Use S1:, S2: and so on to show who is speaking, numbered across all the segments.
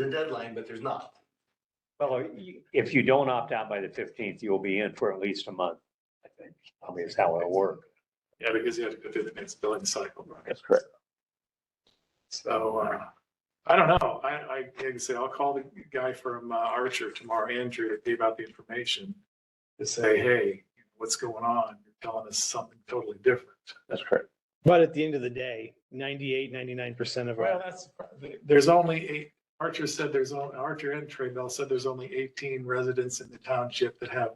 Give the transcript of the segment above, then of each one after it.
S1: the deadline, but there's not.
S2: Well, you- if you don't opt out by the fifteenth, you'll be in for at least a month, I think. I mean, it's how it'll work.
S3: Yeah, because you have to go through the next billing cycle, right?
S2: That's correct.
S3: So, uh, I don't know. I, I, like I say, I'll call the guy from uh, Archer tomorrow, Andrew, to give out the information. To say, hey, what's going on? You're telling us something totally different.
S2: That's correct.
S4: But at the end of the day, 98, 99% of
S3: Well,
S4: our,
S3: that's, there's only eight, Archer said there's, on- Archer and Trade Bell said there's only eighteen residents in the township that have,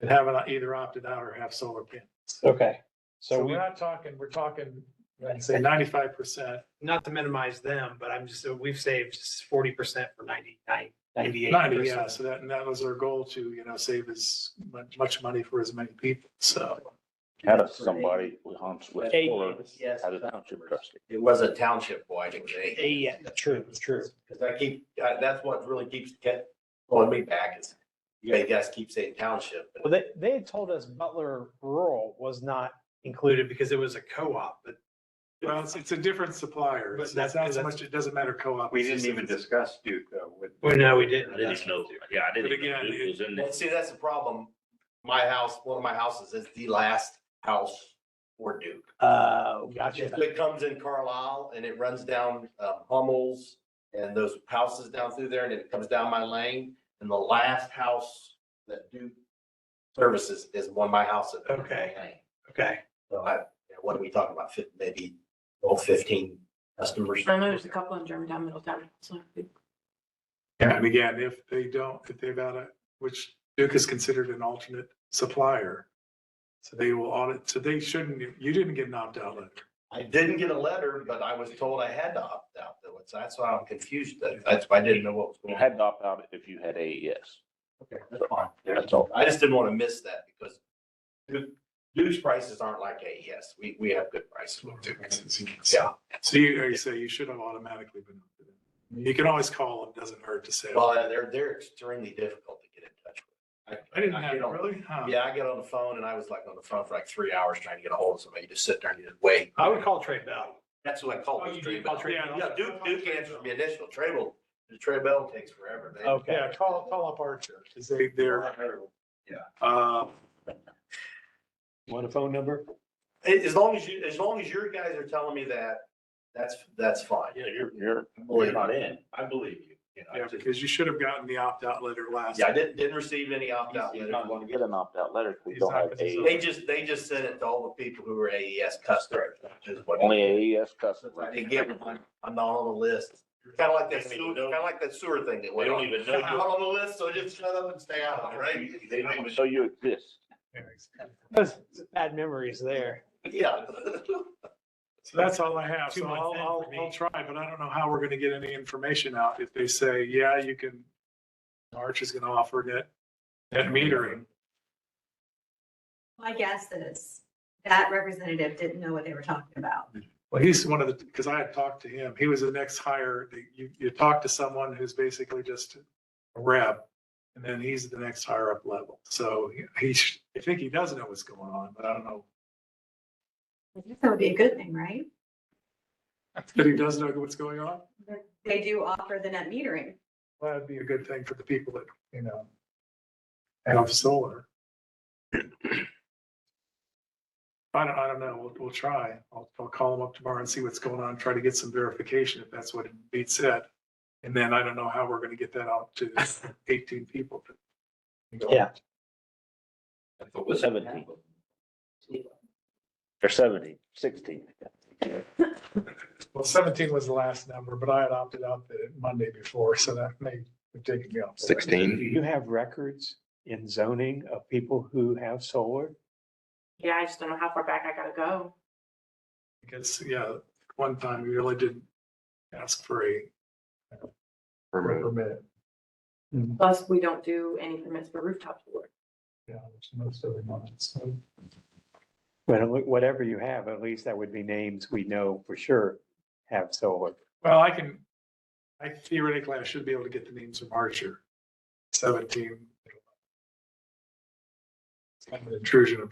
S3: that haven't either opted out or have solar panels.
S4: okay.
S3: So
S4: So we,
S3: we're not talking, we're talking, I'd say ninety-five percent,
S5: not to minimize them, but I'm just, we've saved forty percent for ninety-nine, ninety-eight.
S3: ninety, yeah. So that, and that was our goal to, you know, save as much, much money for as many people. So,
S6: Had a somebody who hunts with
S4: Eight.
S6: bullets,
S1: Yes.
S6: had a township trustee.
S1: It was a township wide, it was
S4: Eh, yeah, true, true.
S1: Cause I keep, I- that's what really keeps kept pulling me back is you guys- you guys keep saying township.
S4: Well, they, they had told us Butler Rural was not
S5: Included because it was a co-op, but
S3: well, it's, it's a different supplier.
S5: But
S3: It's
S5: that's-
S3: it's not so
S5: that's-
S3: much, it doesn't matter co-op.
S7: We
S3: it's
S7: didn't
S3: just-
S7: even discuss Duke uh, with.
S5: well, no, we didn't.
S7: I didn't even know, yeah, I didn't
S3: But
S7: even know
S3: again,
S7: Duke was in
S1: Well,
S7: this.
S1: see, that's the problem. My house, one of my houses is the last house for Duke.
S5: Oh,
S4: Uh,
S1: It
S4: gotcha.
S1: it comes in Carlisle and it runs down uh, Hummel's and those houses down through there and it comes down my lane. And the last house that Duke services is one of my house. at-
S5: Okay. Okay.
S1: So I, what are we talking about? Fif- Maybe, oh, fifteen customers?
S8: I know there's a couple in Germantown, Middletown. so
S3: Yeah, and again, if they don't, if they've got a, which Duke is considered an alternate supplier. So they will audit, so they shouldn't, you didn't get an opt-out letter.
S1: I didn't get a letter, but I was told I had to opt out. though. It's- That's why I'm confused. That- That's why I didn't know what was
S6: You
S1: going on.
S6: had to opt out if you had AES.
S1: Okay, that's fine.
S6: That's all.
S1: I just didn't want to miss that because Duke- Duke's prices aren't like AES. We, we have good prices with Duke. Yeah.
S3: So you, like you say, you should have automatically been. opt in. You can always call, it doesn't hurt to say.
S1: Well, they're, they're extremely difficult to get in touch with.
S3: I didn't have,
S1: get
S3: it,
S1: on-
S3: really? Huh.
S1: Yeah, I get on the phone and I was like on the phone for like three hours trying to get a hold of somebody. You just sit there and you just wait.
S5: I would call Trade Bell.
S1: That's what I called.
S5: Oh,
S1: it,
S5: you
S1: Trey
S5: did call
S1: Bell.
S5: Trey
S1: Yeah,
S5: Bell?
S1: yeah, Duke, Duke answered me initial. Trey Bell, the Trey Bell takes forever.
S5: Oh.
S1: They-
S4: Okay.
S3: Yeah, call, call up Archer, because they, they're,
S1: Yeah.
S3: uh,
S2: Want a phone number?
S1: A- As long as you, as long as your guys are telling me that, that's, that's fine.
S7: Yeah, you're,
S6: You're,
S7: you're not in. I believe you. you know,
S3: yeah,
S7: it's just-
S3: because you should have gotten the opt-out letter last.
S1: Yeah, I didn't, didn't receive any opt-out
S6: you're
S1: letters.
S6: not gonna get an opt-out letter if we
S3: He's
S6: don't
S3: not
S6: have
S3: gonna- he's
S6: E
S3: not-
S1: They
S6: AES.
S1: just, they just sent it to all the people who were AES customers. which is what-
S7: E
S6: Only AES
S1: Since
S6: customers.
S1: I didn't get one, I'm not on the list. Kind of like that
S7: They don't
S1: sewer,
S7: even know.
S1: kind of like that sewer thing that
S7: They
S1: went
S7: don't
S1: on.
S7: even
S1: I'm
S7: know.
S1: not on the list, so just shut up and stay out of it, right?
S7: Duke. They don't even-
S6: So you exist.
S4: Those Bad memories there.
S1: Yeah.
S3: So that's all I have.
S4: Too
S3: So
S4: much
S3: I'll,
S4: then
S3: I'll,
S4: for me.
S3: I'll try, but I don't know how we're gonna get any information out if they say, yeah, you can. Arch is gonna offer net, net metering.
S9: My guess is that representative didn't know what they were talking about.
S3: Well, he's one of the, because I had talked to him. He was the next hire. You, you talk to someone who's basically just a rep. And then he's the next higher up level. So he- he, sh- I think he does know what's going on, but I don't know.
S9: I guess That would be a good thing, right?
S3: But he does know what's going on.
S9: They do offer the net metering.
S3: Well, That'd be a good thing for the people that, you know, have solar. I don't, I don't know. We'll, we'll try. I'll, I'll call them up tomorrow and see what's going on, try to get some verification if that's what Pete said. And then I don't know how we're gonna get that out to eighteen people.
S4: Yeah.
S6: Seventeen. Or seventeen, sixteen.
S3: Well, seventeen was the last number, but I had opted out the Monday before, so that may have taken me off.
S2: Do you have records in zoning of people who have solar?
S8: Yeah, I just don't know how far back I gotta go.
S3: Because, yeah, one time we really didn't ask for a uh, permit.
S8: Plus, we don't do any permits for rooftop solar.
S3: Yeah, which most of them aren't, so.
S2: Well, whatever you have, at least that would be names we know for sure have solar.
S3: Well, I can, I theoretically, I should be able to get the names from Archer, seventeen. It's kind of an intrusion of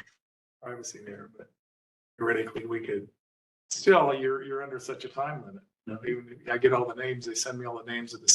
S3: privacy there, but theoretically, we could, still, you're, you're under such a time limit. You know, Even if I get all the names, they send me all the names of the